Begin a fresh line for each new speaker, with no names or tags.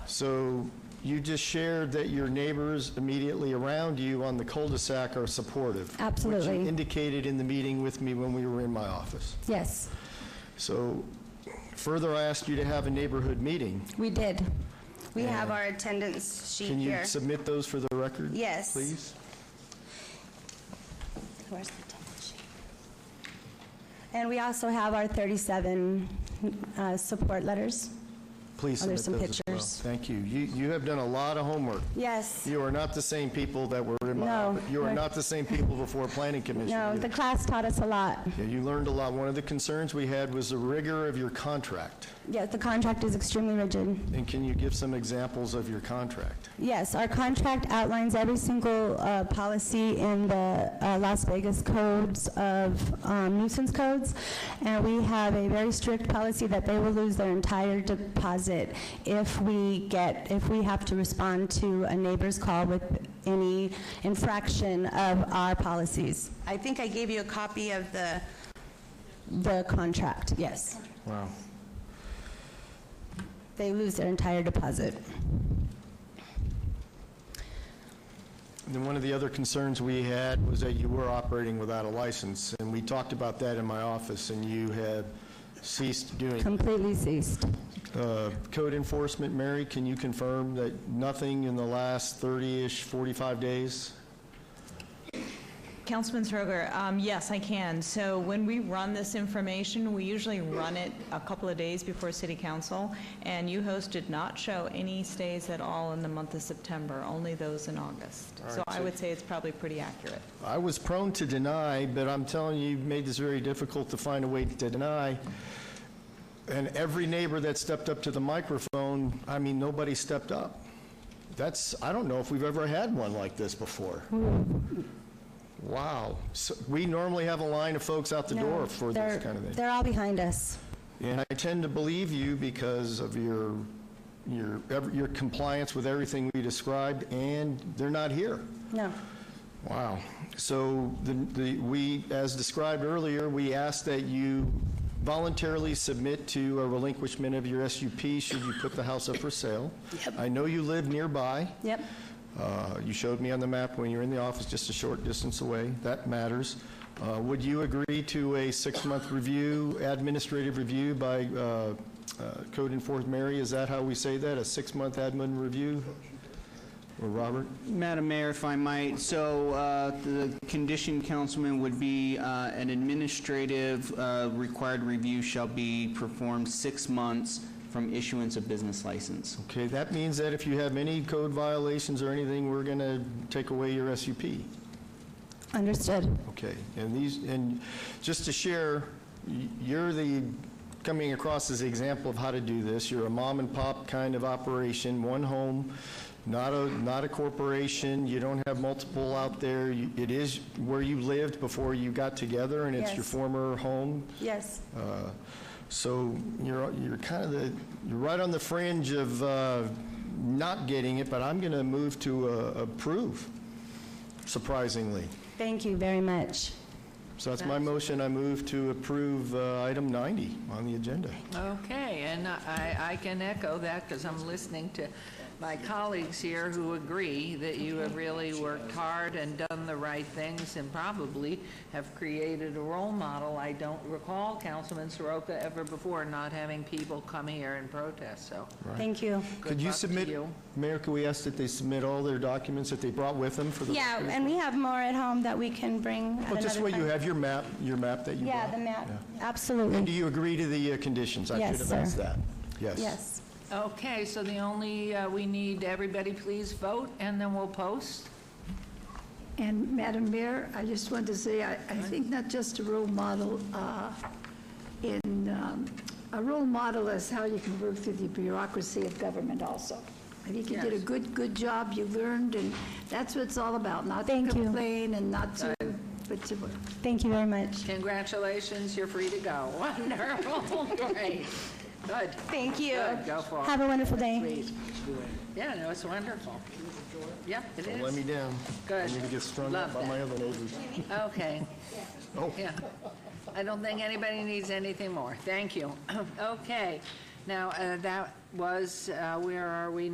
So you just shared that your neighbors immediately around you on the cul-de-sac are supportive. Which
Absolutely.
you indicated in the meeting with me when we were in my office.
Yes,
So further, I asked you to have a neighborhood meeting.
we did.
We have our attendance sheet
Can you
here.
submit those for the record?
Yes.
Please?
Where's the attendance sheet?
And we also have our 37 uh, support letters.
Please
Oh,
submit
there's
those as well.
some pictures.
Thank you. You, you have done a lot of homework.
Yes.
You are not the same people that were in my
No,
office. You are
we're-
not the same people before planning commission.
No,
either.
the class taught us a lot.
Yeah, You learned a lot. One of the concerns we had was the rigor of your contract.
Yes, the contract is extremely rigid.
And can you give some examples of your contract?
Yes, our contract outlines every single uh, policy in the uh, Las Vegas codes of um, nuisance codes, and we have a very strict policy that they will lose their entire deposit if we get, if we have to respond to a neighbor's call with any infraction of our policies.
I think I gave you a copy of the,
The contract, yes.
Wow.
They lose their entire deposit.
And then one of the other concerns we had was that you were operating without a license, and we talked about that in my office, and you have ceased doing.
Completely ceased.
Uh, Code enforcement, Mary, can you confirm that nothing in the last 30-ish, 45 days?
Councilman Stroger, um, yes, I can. So when we run this information, we usually run it a couple of days before city council, and UHOst did not show any stays at all in the month of September, only those in August. So I would say it's probably pretty accurate.
I was prone to deny, but I'm telling you, you've made this very difficult to find a way to deny. And every neighbor that stepped up to the microphone, I mean, nobody stepped up. That's, I don't know if we've ever had one like this before. Wow. So We normally have a line of folks out the
No,
door for
they're-
this kind of thing.
They're all behind us.
And I tend to believe you because of your, your, ev- your compliance with everything we described, and they're not here.
No.
Wow. So the, the, we, as described earlier, we asked that you voluntarily submit to a relinquishment of your SUP should you put the house up for sale. I know you live nearby.
Yep.
Uh, You showed me on the map when you were in the office, just a short distance away. That matters. Uh, Would you agree to a six-month review, administrative review by uh, uh, Code Enforcement Mary? Is that how we say that? A six-month admin review? Or Robert?
Madam Mayor, if I might, so uh, the condition, Councilman, would be uh, an administrative uh, required review shall be performed six months from issuance of business license.
Okay, that means that if you have any code violations or anything, we're going to take away your SUP.
Understood.
Okay, and these, and just to share, y- you're the, coming across as the example of how to do this. You're a mom-and-pop kind of operation, one home, not a, not a corporation, you don't have multiple out there. You- It is where you lived before you got together, and it's your
Yes.
former home,
Yes.
uh, So you're, you're kind of the, you're right on the fringe of uh, not getting it, but I'm going to move to uh, approve, surprisingly.
Thank you very much.
So that's my motion. I move to approve uh, item 90 on the agenda.
Okay, and I, I can echo that because I'm listening to my colleagues here who agree that you have really worked hard and done the right things and probably have created a role model. I don't recall Councilman Soroka ever before not having people come here and protest, so
Thank you.
good
Could you
luck to
submit,
you.
Mayor, could we ask that they submit all their documents that they brought with them for the...
Yeah, and we have more at home that we can bring at another
Well,
time.
just what you have, your map, your map that you brought.
Yeah, the map,
Do
absolutely.
you agree to the uh, conditions? I should
Yes,
have
sir.
asked that. Yes.
Yes.
Okay, so the only, uh, we need, everybody please vote, and then we'll post.
And Madam Mayor, I just want to say, I, I think not just a role model uh, in, um, a role model is how you can work through the bureaucracy of government also. I think you did a
Yes.
good, good job, you learned, and that's what it's all about, not to
Thank you.
complain and not to, but to work.
Thank you very much.
Congratulations, you're free to go. Wonderful, great, good.
thank you.
Good, go for it.
Have a wonderful day.
Sweet. Yeah, no, it's wonderful. Yep, it
Don't let me
is.
down.
Good.
I'm going to get strung up
Love
by
that.
my other neighbors.
Okay,
Oh.
yeah. I don't think anybody needs anything more. Thank you. Okay, now, uh, that was, uh, where are we